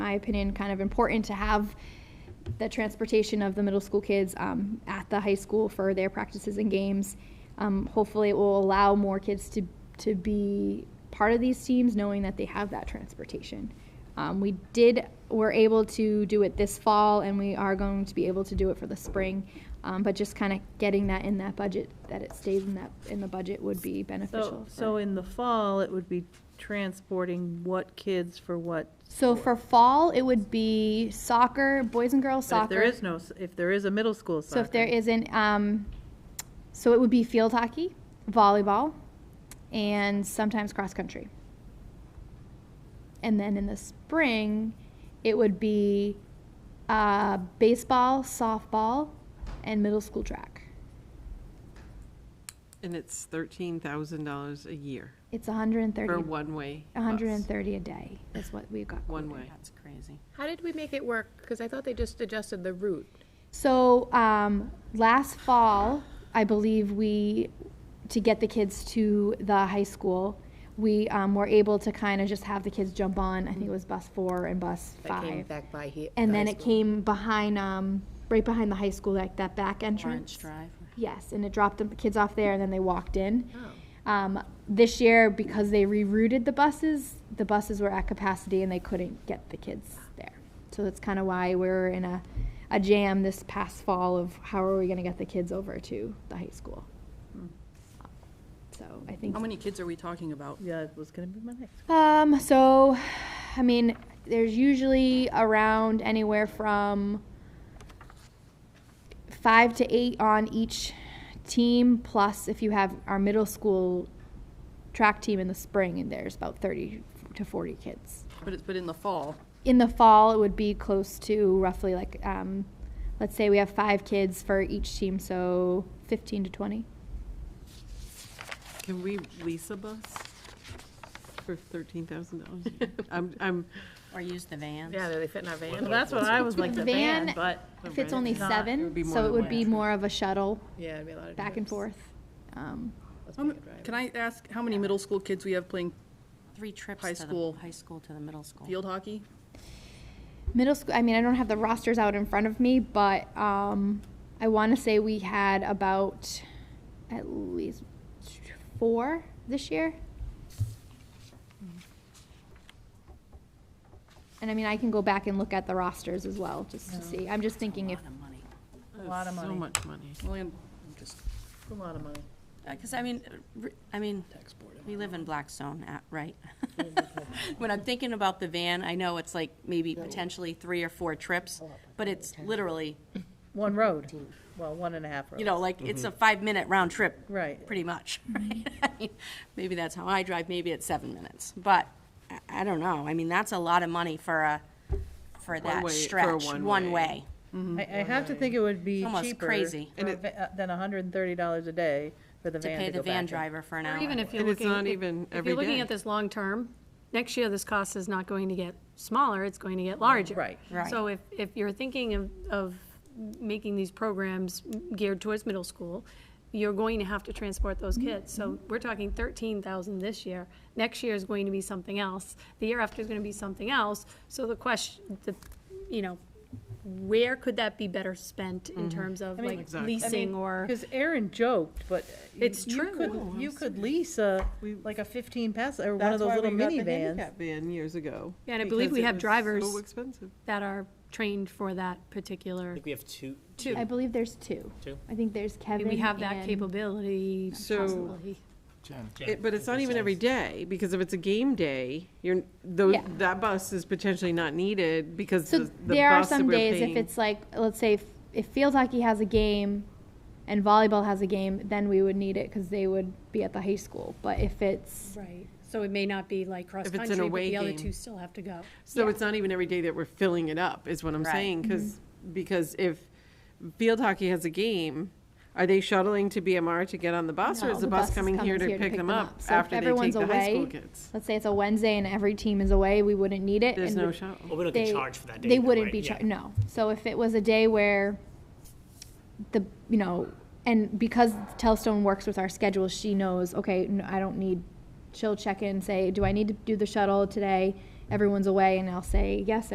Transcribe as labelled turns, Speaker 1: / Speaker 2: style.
Speaker 1: my opinion, kind of important to have the transportation of the middle school kids um, at the high school for their practices and games. Um, hopefully, it will allow more kids to to be part of these teams, knowing that they have that transportation. Um, we did were able to do it this fall, and we are going to be able to do it for the spring. Um, but just kind of getting that in that budget, that it stays in that in the budget, would be beneficial.
Speaker 2: So,
Speaker 1: for-
Speaker 2: so in the fall, it would be transporting what kids for what?
Speaker 1: So for fall, it would be soccer, boys and girls
Speaker 2: But
Speaker 1: soccer.
Speaker 2: If there is no, s- if there is a middle school soccer.
Speaker 1: So if there isn't, um, so it would be field hockey, volleyball, and sometimes cross country. And then in the spring, it would be uh, baseball, softball, and middle school track.
Speaker 3: And it's thirteen thousand dollars a year
Speaker 1: It's 130,
Speaker 3: for one-way bus.
Speaker 1: 130 a day is what we got.
Speaker 3: One
Speaker 1: quoted.
Speaker 3: way.
Speaker 4: That's crazy.
Speaker 5: How did we make it work? Because I thought they just adjusted the route.
Speaker 1: So um, last fall, I believe we, to get the kids to the high school, we um, were able to kind of just have the kids jump on. I think it was bus four and bus
Speaker 5: That came
Speaker 1: five,
Speaker 5: back by here.
Speaker 1: and then it came behind, um, right behind the high school, like that back entrance.
Speaker 4: Orange Drive.
Speaker 1: Yes, and it dropped the kids off there, and then they walked in.
Speaker 4: Oh.
Speaker 1: Um, this year, because they rerouted the buses, the buses were at capacity and they couldn't get the kids there. So that's kind of why we're in a, a jam this past fall of how are we going to get the kids over to the high school. So I think.
Speaker 4: Hmm. How many kids are we talking about?
Speaker 2: Yeah, it was gonna be my next.
Speaker 1: Um, so, I mean, there's usually around anywhere from five to eight on each team, plus if you have our middle school track team in the spring, and there's about 30 to 40 kids.
Speaker 4: But it's, but in the fall,
Speaker 1: In the fall, it would be close to roughly like, um, let's say we have five kids for each team, so 15 to 20.
Speaker 3: Can we lease a bus for thirteen thousand dollars? I'm, I'm,
Speaker 4: or use the vans?
Speaker 5: Yeah, they fit in our
Speaker 2: Well,
Speaker 5: van.
Speaker 2: that's what I was like, the
Speaker 1: Van
Speaker 2: van, but.
Speaker 1: Fits only
Speaker 2: Not-
Speaker 1: seven,
Speaker 3: would be more
Speaker 1: so it
Speaker 3: than
Speaker 1: would
Speaker 3: one
Speaker 1: be
Speaker 3: entry.
Speaker 1: more of a shuttle
Speaker 5: Yeah, it'd be a lot of.
Speaker 1: back and forth. Um,
Speaker 4: How m-
Speaker 6: Can I ask how many middle school kids we have playing
Speaker 4: Three trips
Speaker 6: High
Speaker 4: to the,
Speaker 6: school.
Speaker 4: high school to the middle school.
Speaker 6: field hockey?
Speaker 1: Middle school, I mean, I don't have the rosters out in front of me, but um, I want to say we had about at least four this year. And I mean, I can go back and look at the rosters as well, just to see. I'm just thinking
Speaker 4: A
Speaker 1: if,
Speaker 4: lot of money.
Speaker 2: lot of
Speaker 3: that's so
Speaker 2: money.
Speaker 3: much money.
Speaker 6: Well, and just
Speaker 2: A lot of money.
Speaker 4: Because I mean, uh, r- I mean,
Speaker 6: tax board.
Speaker 4: we live in Blackstone, uh, right? When I'm thinking about the van, I know it's like maybe potentially three or four trips,
Speaker 2: oh,
Speaker 4: but it's literally,
Speaker 2: One road, well, one and a half roads.
Speaker 4: you know, like, it's
Speaker 3: Mm-hmm.
Speaker 4: a five-minute round trip.
Speaker 2: Right. Mm-hmm.
Speaker 4: Pretty much, right? I mean, Maybe that's how I drive, maybe it's seven minutes, but I, I don't know. I mean, that's a lot of money for a, for that
Speaker 3: way- for a
Speaker 4: stretch,
Speaker 3: one
Speaker 4: one
Speaker 3: way.
Speaker 4: way.
Speaker 2: I, I have to think it would be
Speaker 4: Almost
Speaker 2: cheaper.
Speaker 4: crazy.
Speaker 2: for a va- uh, Than hundred and thirty dollars a day for the
Speaker 4: to
Speaker 2: van
Speaker 4: pay
Speaker 2: to
Speaker 4: the
Speaker 2: go
Speaker 4: van
Speaker 2: back in.
Speaker 4: driver for an hour.
Speaker 7: Or even if you're
Speaker 3: And it's
Speaker 7: looking.
Speaker 3: not
Speaker 7: if-
Speaker 3: even
Speaker 7: If
Speaker 3: every
Speaker 7: you're looking
Speaker 3: day.
Speaker 7: at this long-term, next year, this cost is not going to get smaller, it's going to get larger.
Speaker 2: Right.
Speaker 4: Right.
Speaker 7: So if, if you're thinking of, of making these programs geared towards middle school, you're going to have to transport those
Speaker 3: Mm-hmm.
Speaker 7: kids. So we're talking thirteen thousand this year. Next year is going to be something else. The year after is going to be something else. So the question, the, you know, where could that be better spent in terms of like
Speaker 3: Mm-hmm. Exactly.
Speaker 7: leasing or?
Speaker 2: Because Aaron joked, but. you-
Speaker 7: It's
Speaker 2: you
Speaker 7: true.
Speaker 2: could-
Speaker 7: No,
Speaker 2: You could lease a, like a fifteen pass, or one of
Speaker 3: That's
Speaker 2: those
Speaker 3: why
Speaker 2: little
Speaker 3: we got the
Speaker 2: minivans.
Speaker 3: handicap Van years ago.
Speaker 7: Yeah, and I believe
Speaker 3: because
Speaker 7: we
Speaker 3: it
Speaker 7: have
Speaker 3: was
Speaker 7: drivers-
Speaker 3: So expensive.
Speaker 7: that are trained for that particular,
Speaker 8: I think we have two.
Speaker 1: I believe there's two.
Speaker 8: Two?
Speaker 1: I think there's Kevin.
Speaker 7: we have that
Speaker 1: and-
Speaker 7: capability
Speaker 3: So-
Speaker 7: possibly.
Speaker 3: It- But it's not even every day, because if it's a game day, you're, those,
Speaker 1: Yeah.
Speaker 3: that bus is potentially not needed because the
Speaker 1: So
Speaker 3: the
Speaker 1: there are
Speaker 3: bus that
Speaker 1: some
Speaker 3: we're
Speaker 1: days if
Speaker 3: paying-
Speaker 1: it's like, let's say if, if field hockey has a game and volleyball has a game, then we would need it because they would be at the high school. But if it's
Speaker 7: Right, so it may not be like
Speaker 3: it's an
Speaker 7: cross-country, but
Speaker 3: away
Speaker 7: the other
Speaker 3: game.
Speaker 7: two still have to go.
Speaker 3: So it's not even every day that we're filling it up, is what I'm
Speaker 4: Right.
Speaker 3: saying, because, because if field hockey has a game, are they shuttling to BMR to get on the bus, or
Speaker 1: No,
Speaker 3: is the bus
Speaker 1: is
Speaker 3: coming here to pick them up
Speaker 1: So if
Speaker 3: after they take
Speaker 1: everyone's
Speaker 3: the high school
Speaker 1: away,
Speaker 3: kids?
Speaker 1: Let's say it's a Wednesday and every team is away, we wouldn't need it.
Speaker 3: There's
Speaker 1: and
Speaker 3: no
Speaker 1: we-
Speaker 3: shuttle.
Speaker 8: Well, we don't
Speaker 1: they-
Speaker 8: get charged for that day.
Speaker 1: They
Speaker 8: either,
Speaker 1: wouldn't
Speaker 8: right?
Speaker 1: be
Speaker 8: Yeah.
Speaker 1: charged, no. So if it was a day where the, you know, and because Telstone works with our schedule, she knows, okay, n- I don't need, she'll check in, say, do I need to do the shuttle today? Everyone's away, and I'll say, yes,